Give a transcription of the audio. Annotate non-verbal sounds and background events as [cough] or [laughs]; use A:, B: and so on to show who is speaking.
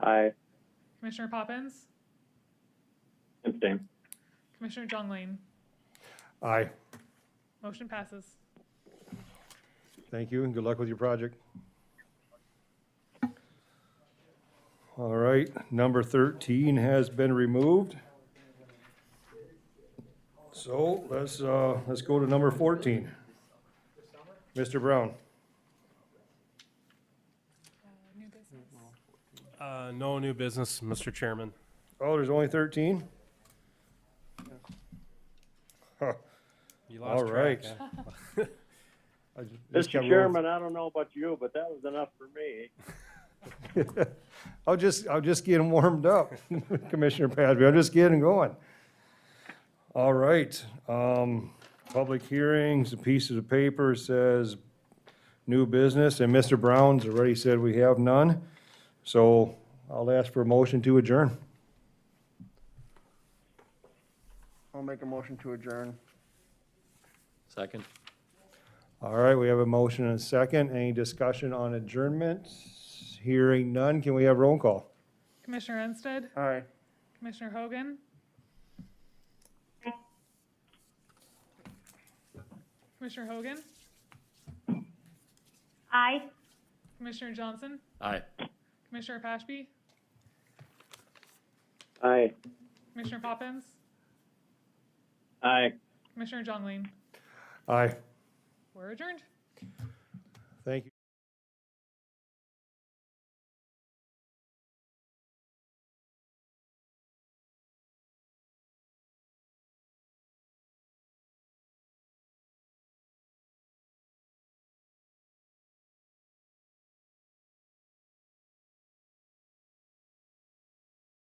A: Aye.
B: Commissioner Poppins,
A: Abstain.
B: Commissioner Jungling.
C: Aye.
B: Motion passes.
C: Thank you, and good luck with your project. All right, number 13 has been removed. So let's, uh, let's go to number 14. Mr. Brown?
B: New business.
D: Uh, No new business, Mr. Chairman.
C: Oh, there's only 13? Huh,
D: You
C: All
D: lost
C: right.
D: track. huh?
C: I just- just
A: Mr.
C: kept rolling.
A: Chairman, I don't know about you, but that was enough for me.
C: I'll just, I'll just get 'em warmed up, [laughs] Commissioner Padby, I'm just getting going. All right, um, public hearings, a piece of the paper says new business, and Mr. Brown's already said we have none. So I'll ask for a motion to adjourn.
E: I'll make a motion to adjourn.
F: Second.
C: All right, we have a motion and a second, any discussion on adjournment? Hearing none, can we have roll call?
B: Commissioner Ensted,
E: Aye.
B: Commissioner Hogan. Commissioner Hogan,
G: Aye.
B: Commissioner Johnson,
F: Aye.
B: Commissioner Pashby,
A: Aye.
B: Commissioner Poppins,
A: Aye.
B: Commissioner Jungling.
C: Aye.
B: We're adjourned.